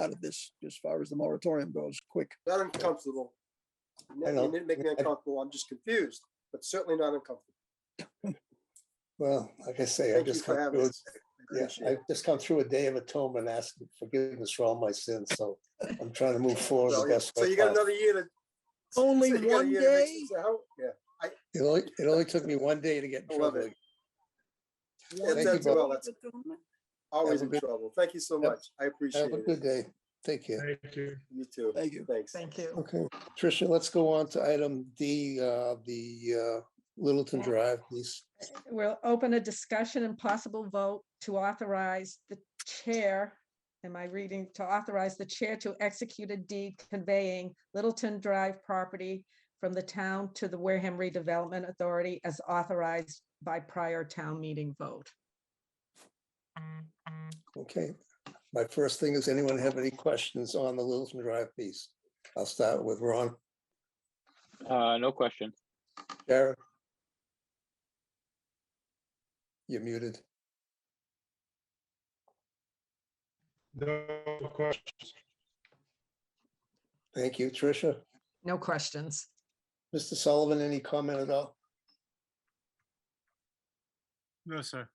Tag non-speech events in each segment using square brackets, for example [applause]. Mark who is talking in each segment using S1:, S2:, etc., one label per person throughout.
S1: out of this as far as the moratorium goes, quick.
S2: Not uncomfortable. No,
S1: I know.
S2: You didn't make me uncomfortable. I'm just confused, but certainly not uncomfortable.
S3: Well, like I say, I
S2: Thank you
S3: just
S2: for
S3: come
S2: having
S3: through,
S2: us. I
S3: yeah,
S2: appreciate
S3: I
S2: it.
S3: just come through a day of atonement, asking forgiveness for all my sins, so I'm trying to move forward
S2: So
S3: the
S2: yeah,
S3: best.
S2: so
S3: way
S2: you got
S3: possible.
S2: another year to.
S1: Only [laughs]
S2: so you got a
S1: one
S2: year to make
S1: day?
S2: sense of how- Yeah,
S3: It only, it only took me one day to get
S2: I
S3: in
S2: love
S3: trouble.
S2: that's,
S3: Thank you
S2: that's well,
S3: both.
S2: that's always in
S3: good-
S2: trouble. Thank you so
S3: Yep.
S2: much. I appreciate
S3: Have a
S2: it.
S3: good day. Thank you.
S4: Thank you.
S2: You too.
S1: Thank you.
S2: Thanks.
S5: Thank you.
S3: Okay, Tricia, let's go on to item D, uh, the, uh, Littleton Drive piece.
S5: We'll open a discussion and possible vote to authorize the chair. Am I reading to authorize the chair to execute a deed conveying Littleton Drive property from the town to the Wareham Redevelopment Authority as authorized by prior town meeting vote?
S3: Okay, my first thing is anyone have any questions on the Littleton Drive piece? I'll start with Ron,
S6: Uh, no question.
S3: Jared. You're muted.
S4: No questions.
S3: Thank you, Tricia.
S5: No questions.
S3: Mr. Sullivan, any comment at all?
S4: No, sir.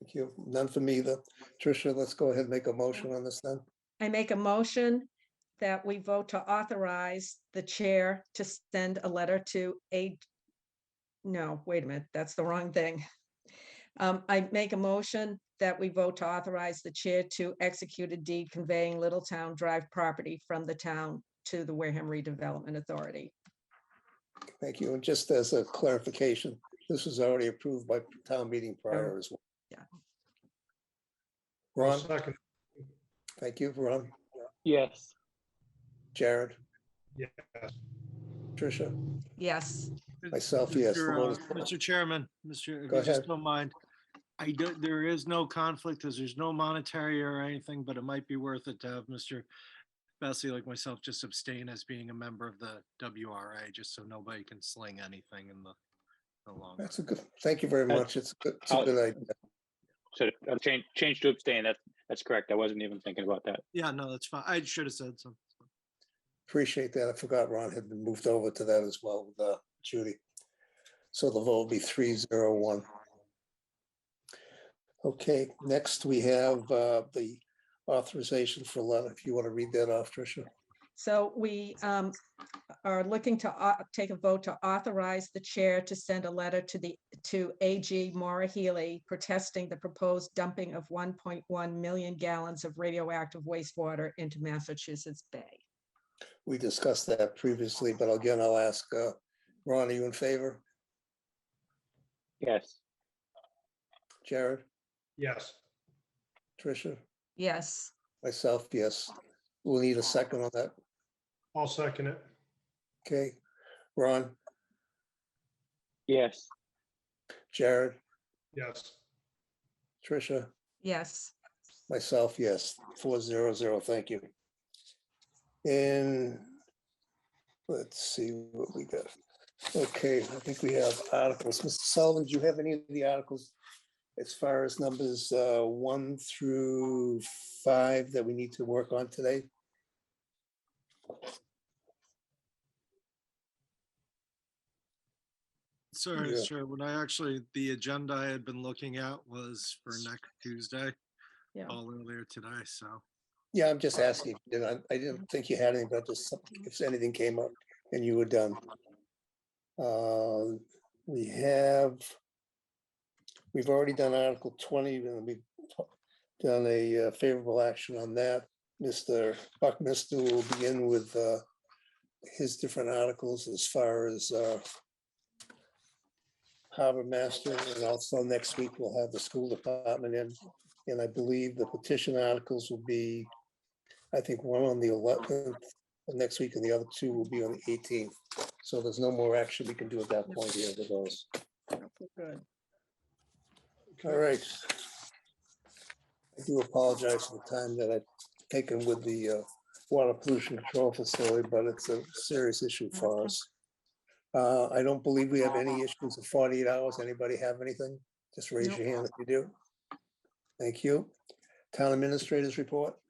S3: Thank you. None for me either. Tricia, let's go ahead and make a motion on this then.
S5: I make a motion that we vote to authorize the chair to send a letter to a, no, wait a minute, that's the wrong thing. Um, I make a motion that we vote to authorize the chair to execute a deed conveying Littletown Drive property from the town to the Wareham Redevelopment Authority.
S3: Thank you. And just as a clarification, this was already approved by town meeting prior as well.
S5: Yeah.
S3: Ron,
S4: Second,
S3: thank you, Ron.
S6: Yes.
S3: Jared,
S4: yes.
S3: Tricia,
S5: Yes,
S3: myself, yes. the
S7: Mr.
S3: vote
S7: uh,
S3: is-
S7: Mr. Chairman, Mr. if
S3: Go
S7: you just
S3: ahead.
S7: don't mind, I don't, there is no conflict as there's no monetary or anything, but it might be worth it to have Mr. Bessie, like myself, just abstain as being a member of the WRA, just so nobody can sling anything in the, the long. run.
S3: That's a good, thank you very
S6: Uh,
S3: much. It's, a good- it's a
S6: I'll-
S3: good idea.
S6: So uh, change, change to abstain. That's, that's correct. I wasn't even thinking about that.
S7: Yeah, no, that's fine. I should have said something.
S3: Appreciate that. I forgot Ron had been moved over to that as well with uh, Judy. So the vote will be three zero one. Okay, next we have uh, the authorization for letter. If you want to read that off, Tricia.
S5: so we um, are looking to au- take a vote to authorize the chair to send a letter to the, to AG Maura Healy protesting the proposed dumping of 1.1 million gallons of radioactive wastewater into Massachusetts Bay.
S3: We discussed that previously, but again, I'll ask, uh, Ron, are you in favor?
S6: Yes.
S3: Jared,
S4: Yes.
S3: Tricia,
S5: Yes,
S3: myself, yes. We'll need a second on that.
S4: I'll second it.
S3: Okay, Ron,
S6: Yes.
S3: Jared,
S4: Yes.
S3: Tricia,
S5: yes.
S3: Myself, yes, four zero zero, thank you. And let's see what we got. Okay, I think we have articles. Mr. Sullivan, do you have any of the articles? As far as numbers uh, one through five that we need to work on today?
S7: Sorry,
S3: Yeah.
S7: sir. When I actually, the agenda I had been looking at was for next Tuesday.
S5: Yeah.
S7: All earlier today, so.
S3: Yeah, I'm just asking. if you did. I I didn't think you had any, but just some- if anything came up and you were done. Uh, We have, we've already done Article 20, and we've done a uh, favorable action on that. Mr. Buckminster will begin with uh, his different articles as far as uh, harbor master, and also next week we'll have the school department in. And I believe the petition articles will be, I think, one on the eleventh next week and the other two will be on the eighteenth. So there's no more action we can do at that point here with those.
S5: Good.
S3: All right. I do apologize for the time that I've taken with the uh, water pollution control facility, but it's a serious issue for us. Uh, I don't believe we have any issues of forty-eight hours. Anybody have anything? Just raise your hand if you do. Thank you. Town administrators report.